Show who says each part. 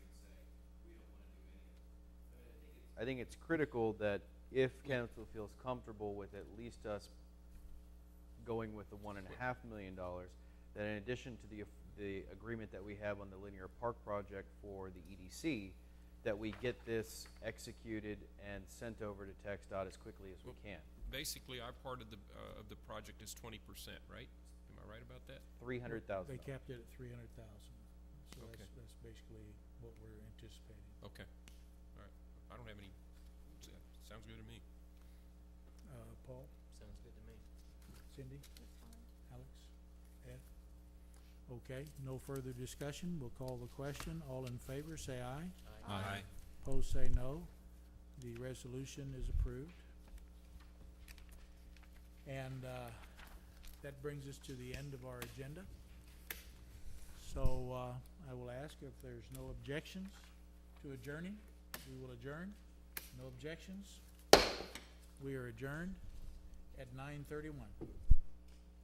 Speaker 1: I think it's critical that if council feels comfortable with at least us going with the one and a half million dollars, that in addition to the, the agreement that we have on the linear park project for the EDC, that we get this executed and sent over to Tech dot as quickly as we can.
Speaker 2: Basically, our part of the, uh, of the project is twenty percent, right? Am I right about that?
Speaker 1: Three hundred thousand.
Speaker 3: They capped it at three hundred thousand, so that's,
Speaker 2: Okay.
Speaker 3: that's basically what we're anticipating.
Speaker 2: Okay, all right. I don't have any, s- sounds good to me.
Speaker 3: Uh, Paul,
Speaker 4: Sounds good to me.
Speaker 3: Cindy, Alex, Ed? Okay, no further discussion, we'll call the question, all in favor, say aye.
Speaker 2: Aye.
Speaker 3: Opposed, say no. The resolution is approved. And uh, that brings us to the end of our agenda. So uh, I will ask if there's no objections to adjourning. We will adjourn. No objections. We are adjourned at nine thirty-one.